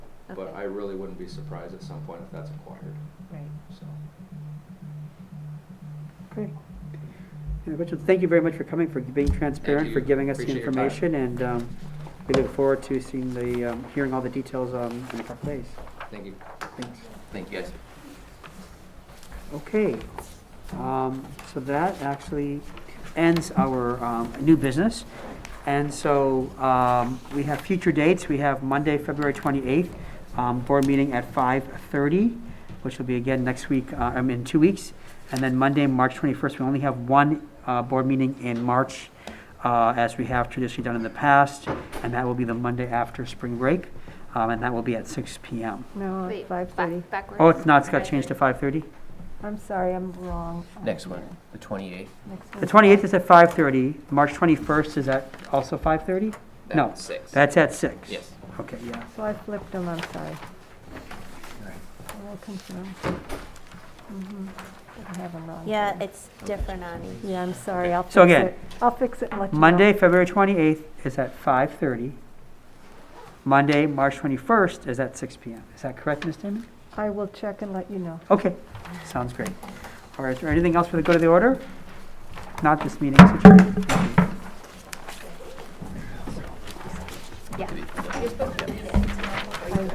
But Okay. I really wouldn't be surprised at some point if that's acquired, Right, so. Okay. Uh, Richard, thank you very much for coming, for being transparent, for you. giving us the Appreciate your time. information, and um, we look forward to seeing the, um, hearing all the details um, in a couple days. Thank you. Thanks. Thank you, guys. Okay, um, so that actually ends our, um, new business. And so, um, we have future dates. We have Monday, February twenty-eighth, um, board meeting at five-thirty, which will be again next week, uh, I mean, in two weeks. And then Monday, March twenty-first, we only have one, uh, board meeting in March, uh, as we have traditionally done in the past. And that will be the Monday after spring break, um, and that will be at six P M. no, Wait, five back- thirty. Backwards. Oh, it's not, it's got changed to five-thirty? I'm sorry, I'm wrong. Next one, the 28th. Next The one. 28th is at 5:30, March 21st is at also 5:30? No, Six. that's at six. Yes. Okay, yeah. So I flipped them, I'm sorry. right. I will confirm. Mhm. Didn't have them wrong. Yeah, it's different on each. Yeah, I'm sorry, I'll fix it. So again, I'll fix it and let you know. Monday, February 28th is at 5:30. Monday, March 21st is at six PM. Is that correct, Ms. Damon? I will check and let you know. Okay, sounds great. All right, is there anything else for the go to the order? Not this meeting, is adjourned. Yeah.